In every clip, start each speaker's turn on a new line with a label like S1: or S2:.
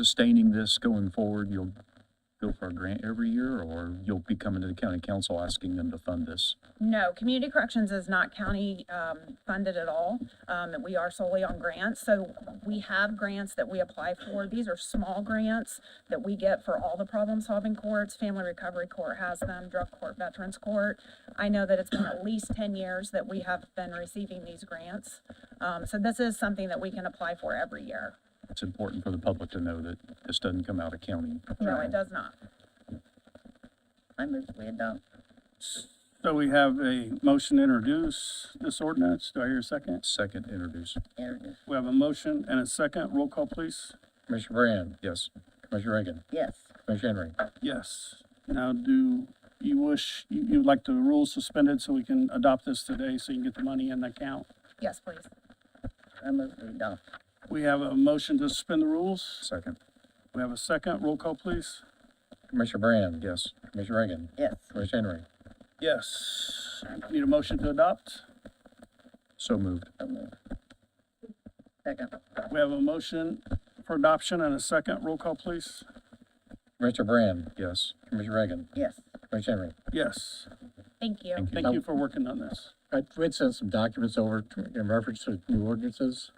S1: sustaining this going forward, you'll go for a grant every year, or you'll be coming to the county council asking them to fund this?
S2: No, community corrections is not county, um, funded at all. Um, we are solely on grants, so we have grants that we apply for. These are small grants that we get for all the problem-solving courts. Family Recovery Court has them, Drug Court, Veterans Court. I know that it's been at least ten years that we have been receiving these grants. Um, so this is something that we can apply for every year.
S1: It's important for the public to know that this doesn't come out of county.
S2: No, it does not.
S3: I move we adopt.
S4: So we have a motion to introduce this ordinance. Do I hear a second?
S1: Second, introduce.
S3: Meredith.
S4: We have a motion and a second. Roll call, please.
S5: Commissioner Brand,
S1: Yes.
S5: Commissioner Reagan,
S3: Yes,
S5: Commissioner Henry.
S4: Yes. Now, do you wish, you, you'd like the rules suspended so we can adopt this today so you can get the money in the account?
S2: Yes, please.
S3: I move we adopt.
S4: We have a motion to suspend the rules.
S1: Second,
S4: We have a second. Roll call, please.
S5: Commissioner Brand,
S1: yes.
S5: Commissioner Reagan,
S3: Yes,
S5: Commissioner Henry.
S4: Yes. Need a motion to adopt?
S1: So moved.
S3: I move. Second.
S4: We have a motion for adoption and a second. Roll call, please.
S5: Commissioner Brand,
S1: Yes.
S5: Commissioner Reagan,
S3: Yes,
S5: Commissioner Henry.
S4: Yes.
S2: Thank you.
S1: Thank you.
S4: Thank you for working on this.
S5: I we had sent some documents over to- in reference to new ordinances.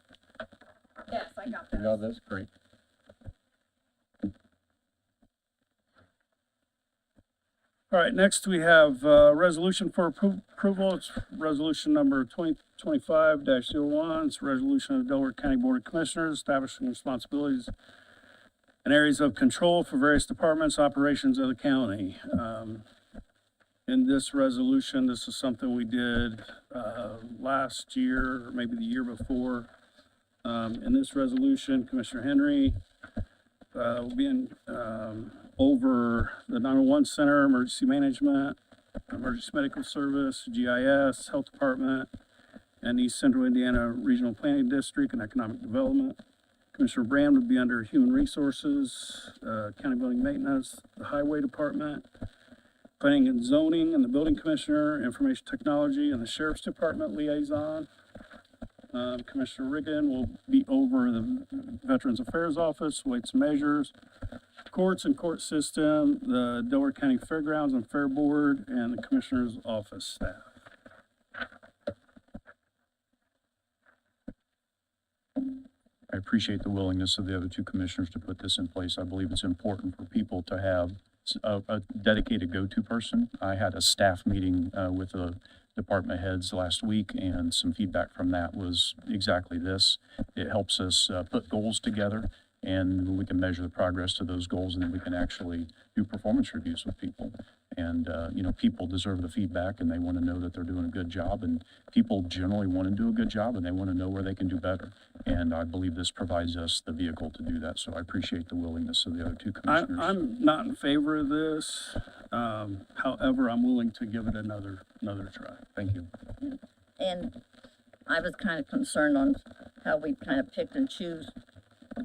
S2: Yes, I got
S5: You
S2: that.
S5: got this? Great.
S4: All right, next we have uh resolution for appro- approval. It's resolution number twenty twenty-five dash zero one. It's a resolution of the Delaware County Board of Commissioners establishing responsibilities and areas of control for various departments, operations of the county. Um, in this resolution, this is something we did, uh, last year, or maybe the year before. Um, in this resolution, Commissioner Henry, uh, will be in, um, over the 911 center, emergency management, emergency medical service, GIS, health department, and East Central Indiana Regional Planning District and Economic Development. Commissioner Brand would be under Human Resources, uh, County Building Maintenance, the Highway Department, Planning and Zoning, and the Building Commissioner, Information Technology, and the Sheriff's Department Liaison. Um, Commissioner Riggin will be over the Veterans Affairs Office, Weights and Measures, Courts and Court System, the Delaware County Fairgrounds and Fair Board, and the Commissioner's Office staff.
S1: I appreciate the willingness of the other two commissioners to put this in place. I believe it's important for people to have s- a, a dedicated go-to person. I had a staff meeting, uh, with the department heads last week and some feedback from that was exactly this. It helps us, uh, put goals together and we can measure the progress to those goals and then we can actually do performance reviews with people. And, uh, you know, people deserve the feedback and they want to know that they're doing a good job. And people generally want to do a good job and they want to know where they can do better. And I believe this provides us the vehicle to do that. So I appreciate the willingness of the other two
S4: I,
S1: commissioners.
S4: I'm not in favor of this, um, however, I'm willing to give it another, another try.
S1: Thank you.
S3: and I was kind of concerned on how we kind of picked and choose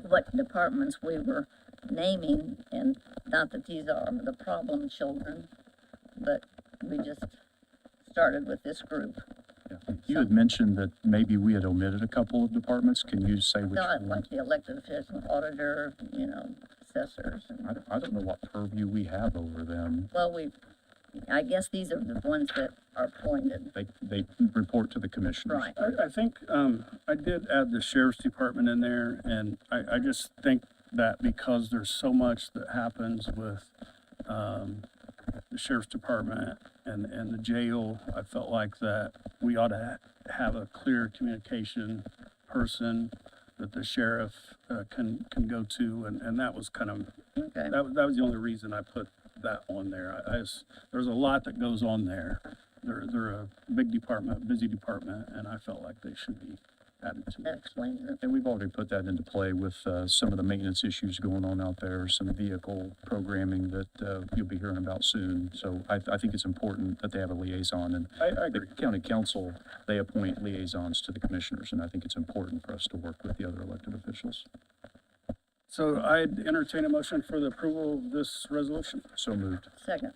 S3: what departments we were naming, and not that these are the problem children, but we just started with this group.
S1: Yeah. You had mentioned that maybe we had omitted a couple of departments. Can you say which
S3: Not
S1: one?
S3: like the elected official, auditor, you know, assessors, and
S1: I don't, I don't know what purview we have over them.
S3: Well, we, I guess these are the ones that are appointed,
S1: They, they report to the commissioners.
S3: right?
S4: I, I think, um, I did add the sheriff's department in there, and I, I just think that because there's so much that happens with, um, the sheriff's department and, and the jail, I felt like that we ought to ha- have a clear communication person that the sheriff, uh, can, can go to, and, and that was kind of,
S3: Okay,
S4: that, was- that was the only reason I put that on there. I, I s- there's a lot that goes on there. They're, they're a big department, busy department, and I felt like they should be added to
S3: that
S4: it.
S3: explains it.
S1: And we've already put that into play with uh, some of the maintenance issues going on out there, some vehicle programming that uh, you'll be hearing about soon. So I, I think it's important that they have a liaison and
S4: I, I
S1: the
S4: agree.
S1: county council, they appoint liaisons to the commissioners. And I think it's important for us to work with the other elected officials.
S4: So I'd entertain a motion for the approval of this resolution.
S1: So moved.
S3: Second,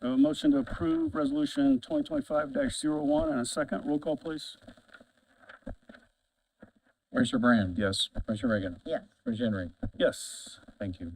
S4: A motion to approve resolution twenty twenty-five one and a second. Roll call, please.
S5: Commissioner Brand,
S1: Yes.
S5: Commissioner Reagan,
S3: yes,
S5: Commissioner Henry.
S4: Yes.
S1: Thank you.